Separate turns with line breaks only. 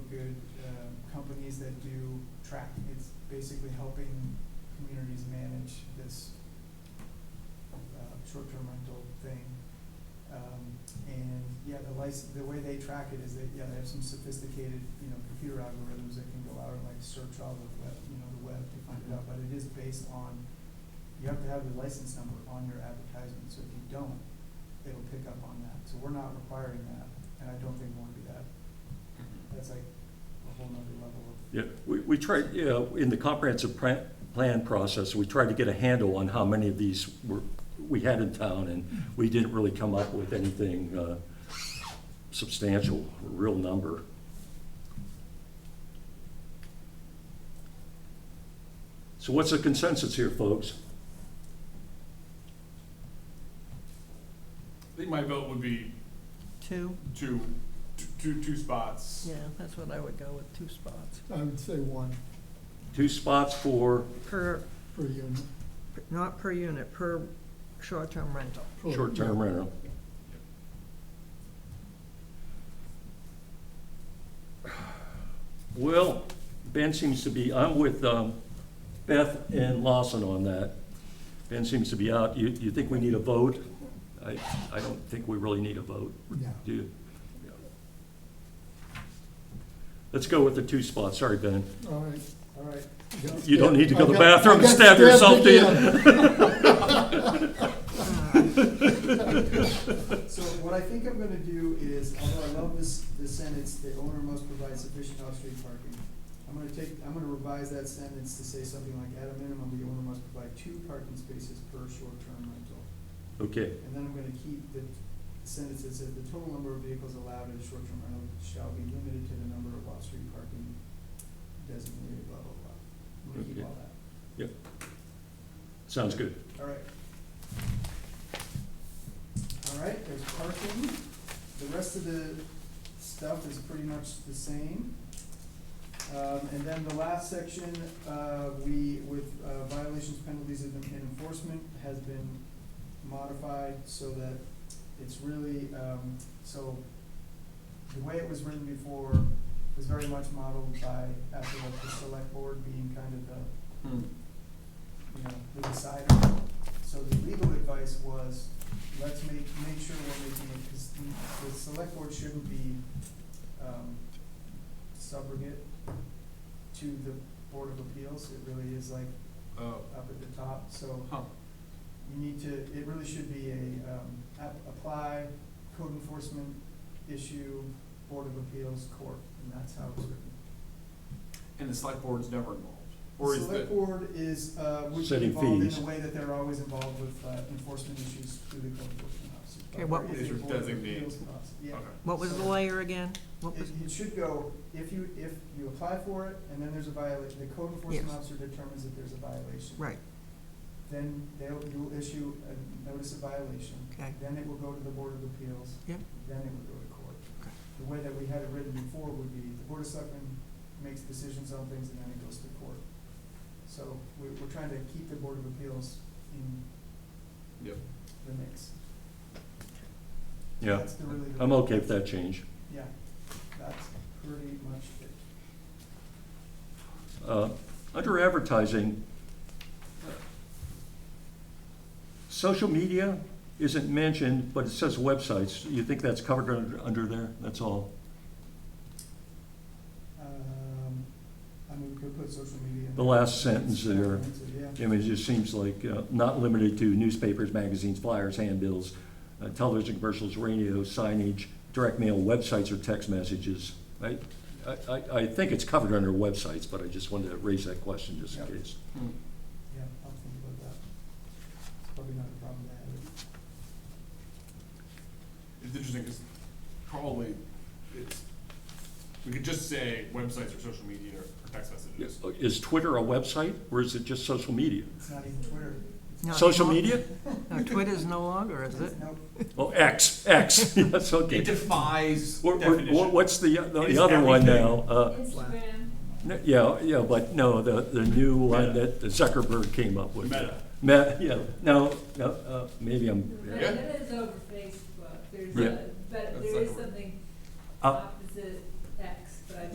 good um, companies that do tracking. It's basically helping communities manage this uh, short-term rental thing. Um, And, yeah, the license, the way they track it is that, yeah, they have some sophisticated, you know, computer algorithms that can go out and like search all the web, you know, the web to find it out. But it is based on, you have to have the license number on your advertisement, so if you don't, it'll pick up on that. So we're not requiring that, and I don't think we'll do that. That's like a whole nother level of,
Yeah, we, we tried, you know, in the comprehensive pra- plan process, we tried to get a handle on how many of these were, we had in town, and we didn't really come up with anything uh, substantial, a real number. So what's the consensus here, folks?
I think my vote would be
Two,
two, two, two, two spots.
yeah, that's what I would go with, two spots.
I would say one
Two spots for
Per,
per unit.
not per unit, per short-term rental.
per-
short-term rental. Well, Ben seems to be, I'm with um, Beth and Lawson on that. Ben seems to be out. You, you think we need a vote? I, I don't think we really need a vote,
No.
do you? Let's go with the two spots. Sorry, Ben.
All right.
all right,
Got
You don't need to go to the
stabbed. I
bathroom and
got- I
stab
got
yourself, do you?
stabbed
So what I think I'm gonna do is, although I love this, this sentence, the owner must provide sufficient off-street parking. I'm gonna take, I'm gonna revise that sentence to say something like, at a minimum, the owner must provide two parking spaces per short-term rental.
Okay,
And then I'm gonna keep the sentence that says, the total number of vehicles allowed in a short-term rental shall be limited to the number of off-street parking designated, blah, blah, blah. I'm gonna keep
Okay.
all that,
sounds good.
all right. All right, there's parking, the rest of the stuff is pretty much the same. Um, and then the last section, uh, we, with uh, violations, penalties, and and enforcement has been modified so that it's really, um, so the way it was written before was very much modeled by, after the select board being kind of the, you know, the decider. So the legal advice was, let's make, make sure we're making it, because the, the select board shouldn't be, um, subrogate to the Board of Appeals, it really is like
Oh,
up at the top, so
huh,
you need to, it really should be a, um, app, apply, code enforcement issue, Board of Appeals, court, and that's how it's written.
and the select board's never involved, or is
Select
that,
Board is, uh, would be
Setting
involved in
fees.
the way that they're always involved with, uh, enforcement issues through the code enforcement officer.
Okay, what-
Or if the
Is your
Board of
designee.
Appeals process- Yeah.
Okay.
What was the layer again? What
It,
was,
it should go, if you, if you apply for it, and then there's a violation, the code enforcement
Yes.
officer determines that there's a violation.
right,
Then they'll, you'll issue a notice of violation.
okay,
Then it will go to the Board of Appeals.
Yep.
Then it will go to court.
Okay.
The way that we had it written before would be, the Board of Selectmen makes decisions on things and then it goes to court. So we, we're trying to keep the Board of Appeals in
Yep.
the mix.
Yeah,
That's the really.
I'm okay with that change.
Yeah, that's pretty much it.
Uh, Under advertising, social media isn't mentioned, but it says websites. You think that's covered under, under there? That's all?
Um, I mean, we could put social media. in
The
there.
last sentence there.
Yeah,
I mean, it just seems like uh, not limited to newspapers, magazines, flyers, handbills, uh, television commercials, radio, signage, direct mail, websites, or text messages. I, I- I, I think it's covered under websites, but I just wanted to raise that question just in
Yeah.
case.
Hmm.
yeah, I'll think about that. It's probably not a problem to have.
it's interesting, because probably, it's, we could just say websites or social media or text messages.
Is Twitter a website, or is it just social media?
It's not even Twitter. It's
No.
Social media?
no, Twitter's no longer, is it?
It's- Nope.
Oh, X, X, yes,
It
okay.
defies
What- what-
definition.
What's the,
It
the
is
other one
everything.
now? Uh,
Instagram.
n- Yeah, yeah, but no, the, the new one that Zuckerberg came up with.
Meta.
Meta, yeah, no, no, uh, maybe I'm,
But it is over Facebook, there's
Yeah.
a, but
That's
there
like
is
a- Oh.
something
Uh,
opposite